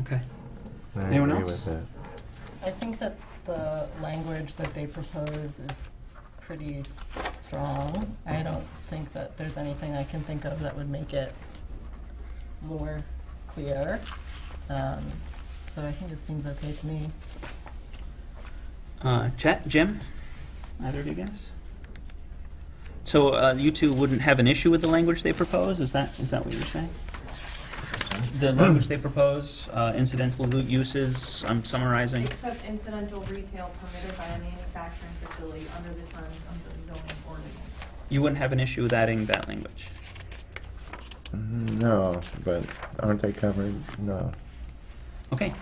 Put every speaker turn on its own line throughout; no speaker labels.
Okay.
I
Anyone
agree
else?
with that.
I think that the language that they propose is pretty strong. I don't think that there's anything I can think of that would make it more clear. Um, So I think it seems okay to me.
Uh, Chet, Jim, either of you guys? So uh, you two wouldn't have an issue with the language they propose? Is that is that what you're saying? The language they propose, uh, incidental lu- uses. I'm summarizing.
Except incidental retail permitted by a manufacturing facility under the terms of the zoning ordinance.
You wouldn't have an issue with adding that language.
Mm, No, but aren't they covered? No.
Okay,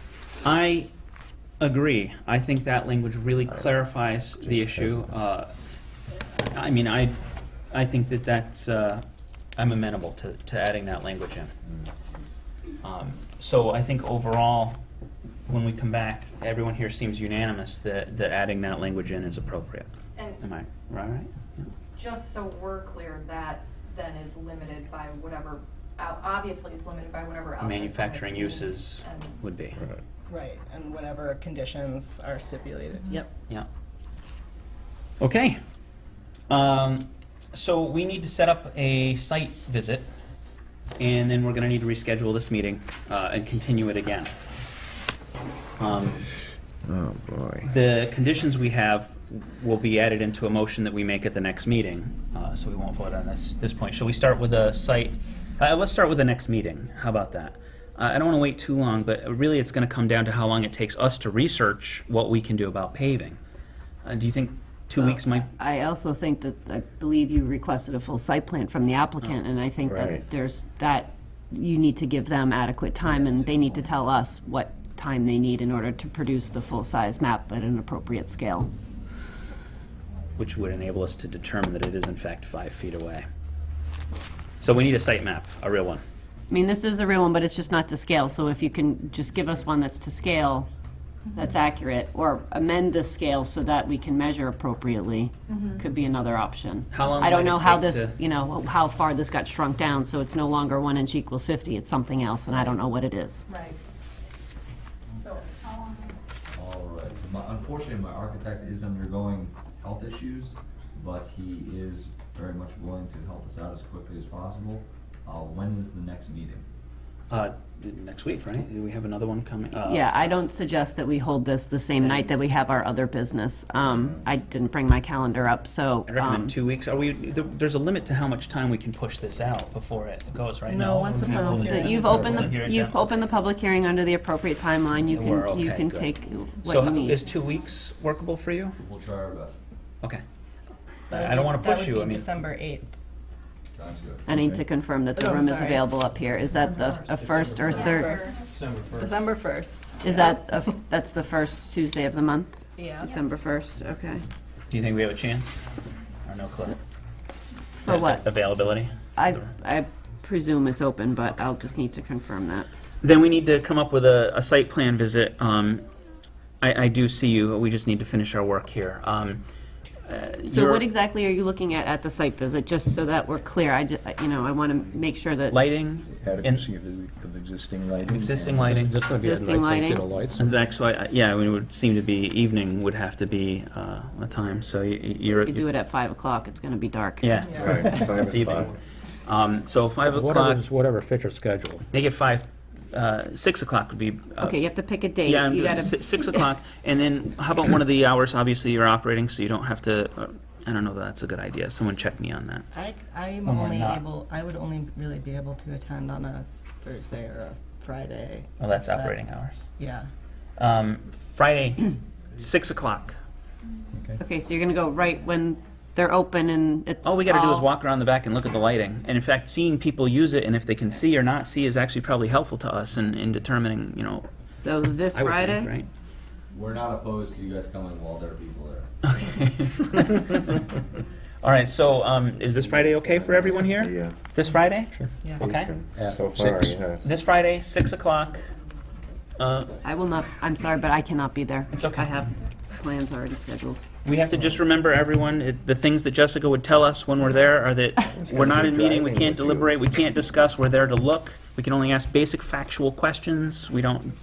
I agree. I think that language really clarifies the
Just
issue.
hesitant.
Uh, I mean, I, I think that that's, uh, I'm amenable to, to adding that language in.
Mm-hmm.
Um, So I think overall, when we come back, everyone here seems unanimous that, that adding that language in is appropriate. Am
And
I right? Yeah.
just so we're clear, that then is limited by whatever, o- obviously it's limited by whatever outside. permits
Manufacturing
we need
uses
and-
would be,
Right.
Right, and whatever conditions are stipulated.
Mm-hmm.
Yep.
yeah. Okay. Um, so we need to set up a site visit, and then we're gonna need to reschedule this meeting, uh, and continue it again. Um,
Oh, boy.
the conditions we have will be added into a motion that we make at the next meeting, uh, so we won't vote on this, this point. Shall we start with a site, uh, let's start with the next meeting, how about that? Uh, I I don't want to wait too long, but really it's going to come down to how long it takes us to research what we can do about paving. Uh, Do you think two weeks might,
I also think that, I believe you requested a full site plan from the applicant, and I think
Right.
that there's, that, you need to give them adequate time, and they need to tell us what time they need in order to produce the full-size map at an appropriate scale.
which would enable us to determine that it is in fact five feet away? So we need a site map, a real one.
I mean, this is a real one, but it's just not to scale, so if you can just give us one that's to scale, that's accurate, or amend the scale so that we can measure appropriately, could be another option.
How long
I don't
might it
know how
take
this,
to-
you know, how far this got shrunk down, so it's no longer one inch equals fifty, it's something else, and I don't know what it is.
Right. So,
All right. My, unfortunately, my architect is undergoing health issues, but he is very much willing to help us out as quickly as possible. Uh, when is the next meeting?
Uh, Next week, right? Do we have another one coming? Uh,
Yeah, I don't suggest that we hold this the same night that we have our other business. Um, I didn't bring my calendar up, so.
I
um,
recommend two weeks. Are we? There, there's a limit to how much time we can push this out before it goes, right?
No, once the
we
public
hold it-
hearing
So you've
hold
opened
it here
the,
at
you've
Denver.
opened the public hearing under the appropriate timeline. You
We're
can, you
okay,
can
good.
take
So
what you
h- is
need.
two weeks workable for you?
We'll try our best.
Okay. I I don't want to push you. I mean,
December 8th.
Sounds good.
I need to confirm that the
Oh,
room is
sorry. Oh,
available up here. Is that the, a first or third?
first,
December 1st.
Is that, a f- that's the first Tuesday of the month?
Yeah.
December 1st, okay.
do you think we have a chance? Or no clue?
For what?
Availability.
I, I presume it's open, but I'll just need to confirm that.
Then we need to come up with a, a site plan visit. Um, I, I do see you. We just need to finish our work here. Um, uh,
So
your
what exactly are you looking at at the site visit, just so that we're clear? I, ju- you know, I want to make sure that,
lighting and
adequacy of the of existing lighting.
existing
and-
lighting?
Just gonna be a nice
Existing
place to
lighting.
the lights.
And actually, I- yeah, I mean, it would seem to be evening would have to be uh, a time. So y- y- you're.
we do it at 5 o'clock, it's going to be dark.
Yeah.
Right, five
It's evening.
o'clock.
Um, so five o'clock.
Whatever's, whatever fits your schedule.
Make it five. Uh, six o'clock would be. Uh,
Okay, you have to pick a date.
Yeah, I'm
You
doing
gotta-
si- six o'clock, and then how about one of the hours? Obviously, you're operating, so you don't have to. Uh, I don't know. that That's a good idea. Someone check me on that.
I, I'm
When we're
only
not.
able, I would only really be able to attend on a Thursday or a Friday.
Well, that's operating hours.
Yeah.
Um, Friday, six o'clock.
Okay, so you're gonna go right when they're open and it's
All we got to do is
all-
walk around the back and look at the lighting. And in fact, seeing people use it and if they can see or not see is actually probably helpful to us in, in determining. You know,
So this
I would think,
Friday?
We're not opposed to you guys coming while there are people there.
right? All right. So, um, is this Friday okay for everyone here?
Yeah.
This Friday? Sure.
Yeah.
Okay.
At
So far,
six.
yes.
This Friday, six o'clock. Uh,
I will not, I'm sorry, but I cannot be there.
It's okay.
I have plans already scheduled.
we have to just remember everyone, it- the things that Jessica would tell us when we're there are that we're not in meeting, we
driving
can't
with you.
deliberate, we can't discuss, we're there to look. We can only ask basic factual questions. We don't